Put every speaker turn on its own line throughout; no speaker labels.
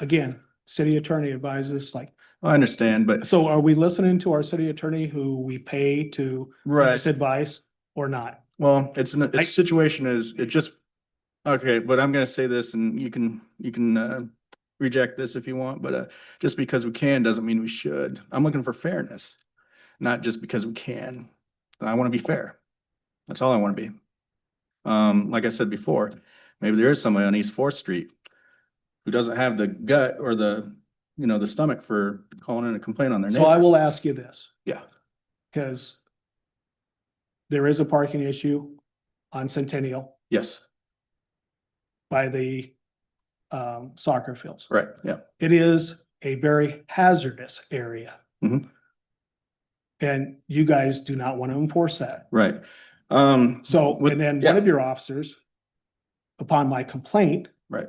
again, city attorney advises, like,
I understand, but
so are we listening to our city attorney who we pay to give
right.
us advice or not?
Well, it's an,
I-
its situation is, it just, okay, but I'm gonna say this and you can, you can, uh, reject this if you want, but, uh, just because we can doesn't mean we should. I'm looking for fairness, not just because we can. And I wanna be fair. That's all I wanna be. Um, like I said before, maybe there is somebody on East Fourth Street who doesn't have the gut or the, you know, the stomach for calling in a complaint on their
So I
neighbor.
will ask you this.
Yeah.
Cause there is a parking issue on Centennial
Yes,
by the um, soccer fields.
right, yeah,
It is a very hazardous area.
Mhm.
And you guys do not want to enforce that.
right. Um,
So,
with-
and then
yeah.
one of your officers, upon my complaint.
Right.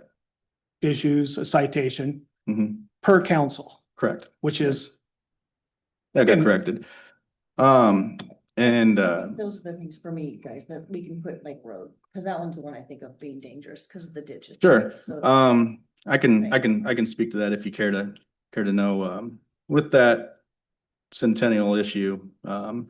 Issues a citation
mhm,
per council,
correct.
which is,
That got
And-
corrected. Um, and, uh,
Those are the things for me, guys, that we can put like road, because that one's the one I think of being dangerous because of the ditches.
Sure,
So-
um, I can, I can, I can speak to that if you care to, care to know, um, with that centennial issue, um,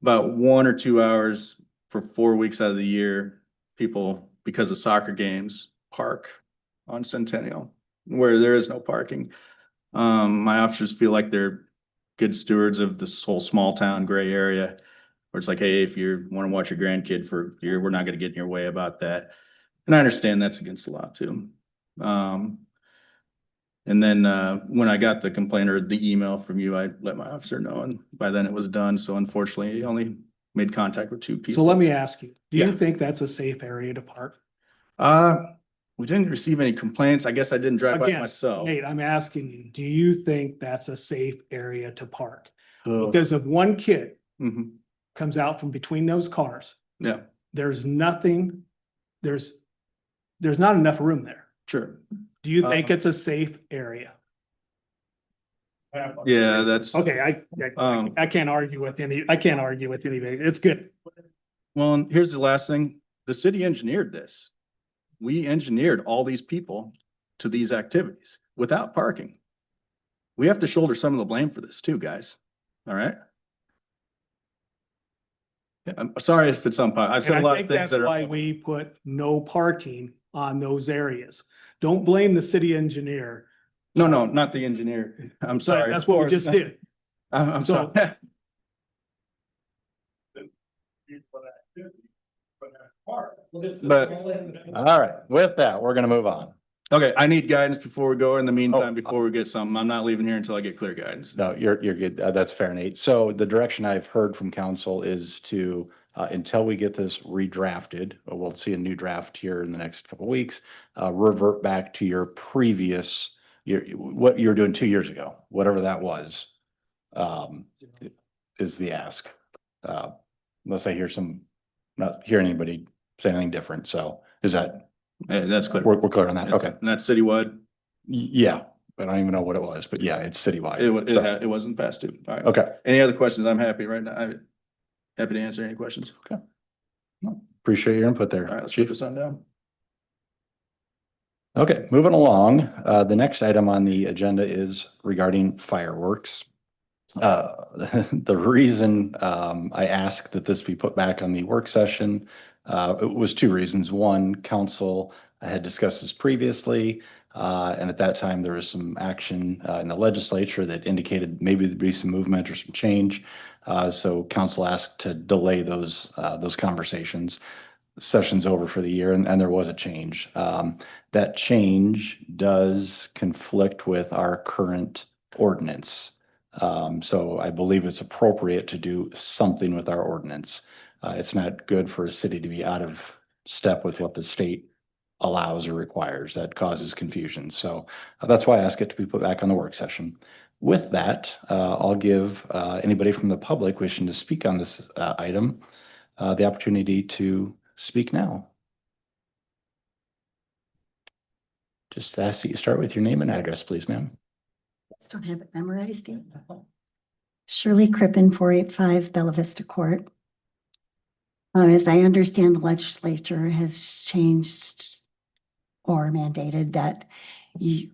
about one or two hours for four weeks out of the year, people, because of soccer games, park on Centennial, where there is no parking. Um, my officers feel like they're good stewards of this whole small town gray area, where it's like, hey, if you want to watch your grandkid for a year, we're not going to get in your way about that. And I understand that's against the law too. Um. And then uh, when I got the complaint or the email from you, I let my officer know and by then it was done. So unfortunately, he only made contact with two
so
people.
let me ask you, do you
Yeah.
think that's a safe area to park?
Uh, we didn't receive any complaints. I guess I didn't drive by
Again,
myself.
Nate, I'm asking you, do you think that's a safe area to park?
Oh,
Because if one kid
mhm.
comes out from between those cars.
Yeah.
There's nothing, there's, there's not enough room there.
Sure.
Do you think
Uh,
it's a safe area?
Yeah, that's,
Okay, I, I,
um,
I can't argue with any, I can't argue with anybody. It's good.
well, and here's the last thing. The city engineered this. We engineered all these people to these activities without parking. We have to shoulder some of the blame for this too, guys. All right? Yeah, I'm sorry if it's unpopular. I've
And
said a
I
lot of
think
things
that's
that
why
are.
we put no parking on those areas. Don't blame the city engineer.
No, no, not the engineer. I'm
So
sorry.
that's
of
what we
course.
just did.
I'm, I'm sorry.
So-
But-
All right, with that, we're gonna move on.
Okay, I need guidance before we go. In the meantime,
Oh.
before we get some, I'm not leaving here until I get clear guidance.
No, you're, you're good. Uh, That's fair, Nate. So the direction I've heard from council is to, uh, until we get this redrafted, uh, we'll see a new draft here in the next couple of weeks, uh, revert back to your previous, your, what you were doing two years ago, whatever that was, um, is the ask. Uh, Unless I hear some, not hear anybody say anything different. So is that,
Eh, that's clear.
we're, we're clear on that?
Yeah,
Okay.
And that's citywide.
Y- Yeah, but I don't even know what it was, but yeah, it's citywide.
It wa- it
So-
ha- it wasn't passed due. All right.
Okay,
Any other questions? I'm happy right now. I'm happy to answer any questions.
appreciate your input
All right,
there,
let's put
chief.
this on down.
Okay, moving along, uh, the next item on the agenda is regarding fireworks. Uh, the reason, um, I asked that this be put back on the work session, uh, it was two reasons. One, council uh, had discussed this previously, uh, and at that time, there was some action, uh, in the legislature that indicated maybe there'd be some movement or some change. Uh, so council asked to delay those, uh, those conversations. Session's over for the year and, and there was a change. Um, that change does conflict with our current ordinance. Um, so I believe it's appropriate to do something with our ordinance. Uh, it's not good for a city to be out of step with what the state allows or requires. That causes confusion. So uh, that's why I ask it to be put back on the work session. With that, uh, I'll give, uh, anybody from the public wishing to speak on this, uh, item, uh, the opportunity to speak now. Just ask that you start with your name and address, please, ma'am.
Just don't have it memorized yet. Shirley Crippen, four eight five Bella Vista Court. Um, as I understand, the legislature has changed or mandated that you,